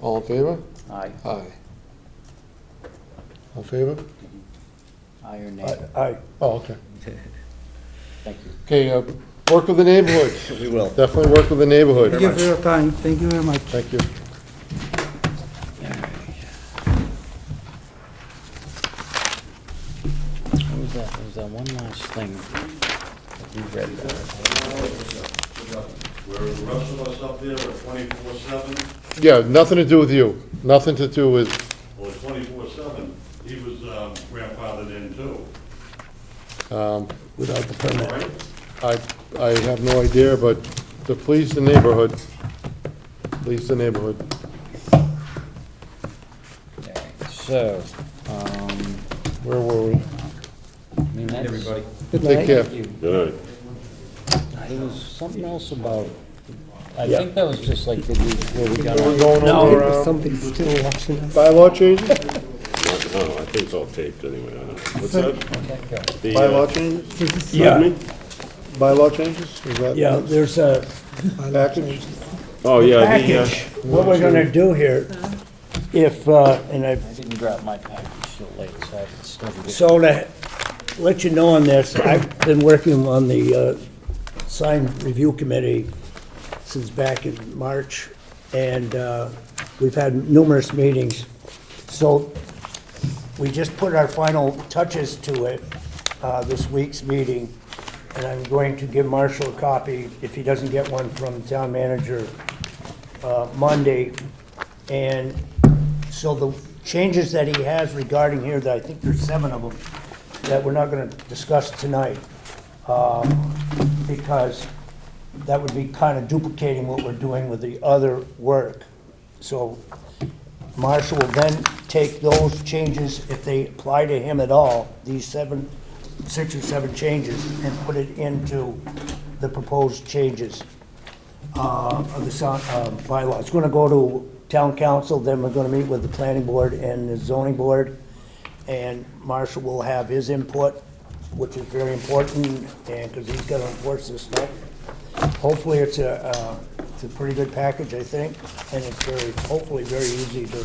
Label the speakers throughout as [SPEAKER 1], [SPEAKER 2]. [SPEAKER 1] All in favor?
[SPEAKER 2] Aye,
[SPEAKER 1] Aye. All in favor?
[SPEAKER 2] aye or nay.
[SPEAKER 3] Aye.
[SPEAKER 1] Oh, okay.
[SPEAKER 2] Thank you.
[SPEAKER 1] Okay, uh, work with the neighborhood.
[SPEAKER 4] We will.
[SPEAKER 1] Definitely work with the neighborhood.
[SPEAKER 3] Thank you for your time, thank you very much.
[SPEAKER 1] Thank you.
[SPEAKER 2] What was that, there was that one last thing that you read there.
[SPEAKER 5] Where the rest of us up there are twenty-four seven,
[SPEAKER 1] Yeah, nothing to do with you. Nothing to do with,
[SPEAKER 5] or twenty-four seven, he was um, grandfathered in too,
[SPEAKER 1] um,
[SPEAKER 3] Without the permit.
[SPEAKER 5] right?
[SPEAKER 1] I, I have no idea, but to please the neighborhood, please the neighborhood.
[SPEAKER 2] So, um,
[SPEAKER 1] Where were we?
[SPEAKER 2] I mean, that's.
[SPEAKER 4] Everybody.
[SPEAKER 3] Good
[SPEAKER 1] Take
[SPEAKER 3] night.
[SPEAKER 1] care.
[SPEAKER 5] Good
[SPEAKER 2] There was something else about, I think that was just like the, week where we got.
[SPEAKER 1] We're going
[SPEAKER 3] No,
[SPEAKER 1] over,
[SPEAKER 3] there was
[SPEAKER 1] um,
[SPEAKER 3] something still watching us.
[SPEAKER 1] bylaw changes?
[SPEAKER 5] Oh, No, I think it's all taped anyway, I don't know. What's
[SPEAKER 3] that?
[SPEAKER 5] The, uh,
[SPEAKER 1] Bylaw changes?
[SPEAKER 3] Yeah,
[SPEAKER 1] Bylaw changes? Is that?
[SPEAKER 3] yeah, there's a
[SPEAKER 1] Package?
[SPEAKER 5] Oh, yeah, the, uh,
[SPEAKER 3] package, what we're gonna do here, if, uh, and I
[SPEAKER 2] I didn't grab my package till late, so I haven't studied it.
[SPEAKER 3] So to let you know on this, I've been working on the uh, sign review committee since back in March, and uh, we've had numerous meetings. So we just put our final touches to it, uh, this week's meeting, and I'm going to give Marshall a copy, if he doesn't get one from town manager, uh, Monday. And so the changes that he has regarding here, that I think there's seven of them, that we're not gonna discuss tonight, um, because that would be kind of duplicating what we're doing with the other work. So Marshall will then take those changes, if they apply to him at all, these seven, six or seven changes, and put it into the proposed changes uh, of the sign- uh, bylaw. It's going to go to town council, then we're going to meet with the planning board and the zoning board, and Marshall will have his input, which is very important, and, because he's going to enforce this stuff. Hopefully, it's a, uh, it's a pretty good package, I think, and it's very, hopefully, very easy to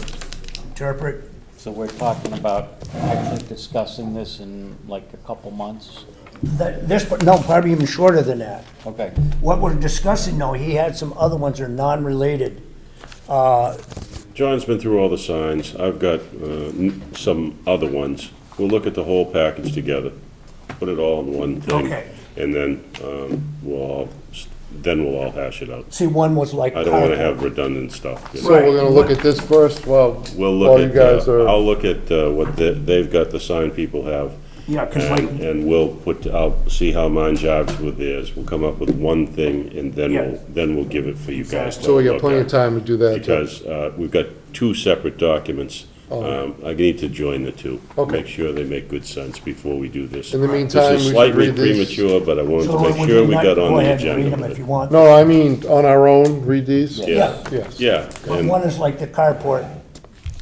[SPEAKER 3] interpret.
[SPEAKER 2] So we're talking about actually discussing this in like a couple months?
[SPEAKER 3] That- This, no, probably even shorter than that.
[SPEAKER 2] Okay,
[SPEAKER 3] What we're discussing, though, he had some other ones that are non-related,
[SPEAKER 5] John's been through all the signs, I've got uh, n- some other ones. We'll look at the whole package together, put it all in one thing.
[SPEAKER 3] Okay.
[SPEAKER 5] And then, um, we'll, all s- then we'll all hash it out.
[SPEAKER 3] see, one was like.
[SPEAKER 5] I don't wanna have redundant stuff. you know?
[SPEAKER 1] So we're gonna look at this first while,
[SPEAKER 5] We'll look
[SPEAKER 1] while you
[SPEAKER 5] at,
[SPEAKER 1] guys
[SPEAKER 5] uh,
[SPEAKER 1] are,
[SPEAKER 5] I'll look at uh, what the- they've got, the sign people have.
[SPEAKER 3] Yeah, 'cause like-
[SPEAKER 5] And and we'll put, I'll see how mine jives with theirs. We'll come up with one thing and then
[SPEAKER 3] Yeah.
[SPEAKER 5] we'll, then we'll give it for you guys. to
[SPEAKER 1] so we got
[SPEAKER 5] look
[SPEAKER 1] plenty of
[SPEAKER 5] at.
[SPEAKER 1] time to do that. too.
[SPEAKER 5] Because uh, we've got two separate documents. Um, I need to join the two.
[SPEAKER 1] Oh. Okay.
[SPEAKER 5] Make sure they make good sense before we do this.
[SPEAKER 1] In the meantime, we
[SPEAKER 5] This is
[SPEAKER 1] should
[SPEAKER 5] slightly
[SPEAKER 1] read these.
[SPEAKER 5] premature, but I wanted
[SPEAKER 3] So
[SPEAKER 5] to
[SPEAKER 3] would
[SPEAKER 5] make
[SPEAKER 3] you
[SPEAKER 5] sure we
[SPEAKER 3] not-
[SPEAKER 5] got on
[SPEAKER 3] Go
[SPEAKER 5] the
[SPEAKER 3] ahead and read
[SPEAKER 5] agenda.
[SPEAKER 3] them if you want.
[SPEAKER 1] No, I mean, on our own, read these?
[SPEAKER 5] Yeah,
[SPEAKER 1] Yes.
[SPEAKER 5] yeah.
[SPEAKER 3] But
[SPEAKER 5] and-
[SPEAKER 3] One is like the carport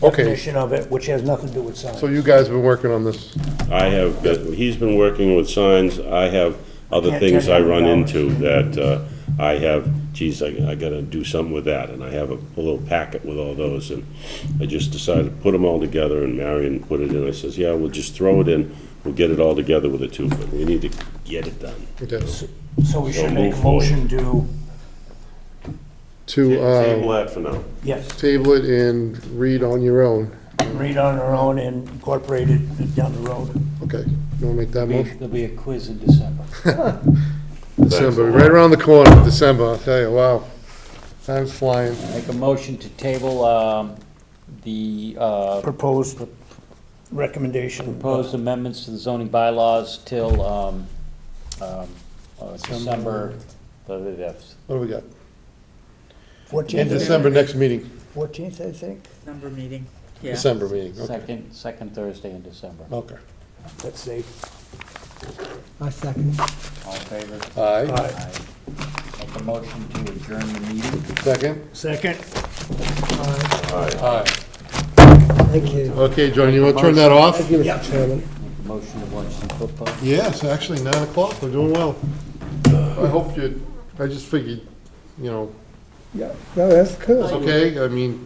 [SPEAKER 1] Okay,
[SPEAKER 3] definition of it, which has nothing to do with
[SPEAKER 1] so
[SPEAKER 3] signs.
[SPEAKER 1] you guys have been working on this.
[SPEAKER 5] I have, got- he's been working with signs, I have other
[SPEAKER 3] Can't
[SPEAKER 5] things
[SPEAKER 3] tell
[SPEAKER 5] I
[SPEAKER 3] you
[SPEAKER 5] run
[SPEAKER 3] how
[SPEAKER 5] into that uh, I have, geez, I I gotta do something with that, and I have a a little packet with all those, and I just decided to put them all together, and Marion put it in, I says, yeah, we'll just throw it in, we'll get it all together with a two, but we need to get it done.
[SPEAKER 1] Okay.
[SPEAKER 3] So we
[SPEAKER 5] So
[SPEAKER 3] should make a
[SPEAKER 5] move forward.
[SPEAKER 3] motion to,
[SPEAKER 1] To,
[SPEAKER 5] Table
[SPEAKER 1] uh,
[SPEAKER 5] that for now.
[SPEAKER 3] yes,
[SPEAKER 1] table it and read on your own.
[SPEAKER 3] read on our own and incorporate it down the road.
[SPEAKER 1] Okay, you wanna make that
[SPEAKER 2] Be-
[SPEAKER 1] motion?
[SPEAKER 2] there'll be a quiz in December.
[SPEAKER 1] December, right around the corner, December, I'll tell you, wow. Time's flying.
[SPEAKER 2] Make a motion to table, um, the, uh,
[SPEAKER 3] Proposed recommendation.
[SPEAKER 2] proposed amendments to the zoning bylaws till, um, um, uh, December, the, the,
[SPEAKER 1] What do we got? In
[SPEAKER 3] Fourteenth,
[SPEAKER 1] December, next meeting,
[SPEAKER 3] fourteenth, I think,
[SPEAKER 6] Number meeting, yeah.
[SPEAKER 1] December meeting, okay.
[SPEAKER 2] second, second Thursday in December.
[SPEAKER 1] Okay.
[SPEAKER 3] that's safe.
[SPEAKER 7] I second.
[SPEAKER 2] All in favor?
[SPEAKER 1] Aye,
[SPEAKER 3] Aye.
[SPEAKER 2] Aye. Make a motion to adjourn the meeting.
[SPEAKER 1] second?
[SPEAKER 3] Second?
[SPEAKER 1] Aye.
[SPEAKER 7] Thank you.
[SPEAKER 1] Okay, John, you wanna turn that off?
[SPEAKER 7] Thank you, Mr. Chairman.
[SPEAKER 2] Motion to watch some football.
[SPEAKER 1] Yes, actually, nine o'clock, we're doing well. I hope you, I just figured, you know,
[SPEAKER 7] Yeah, no, that's cool.
[SPEAKER 1] it's okay, I mean,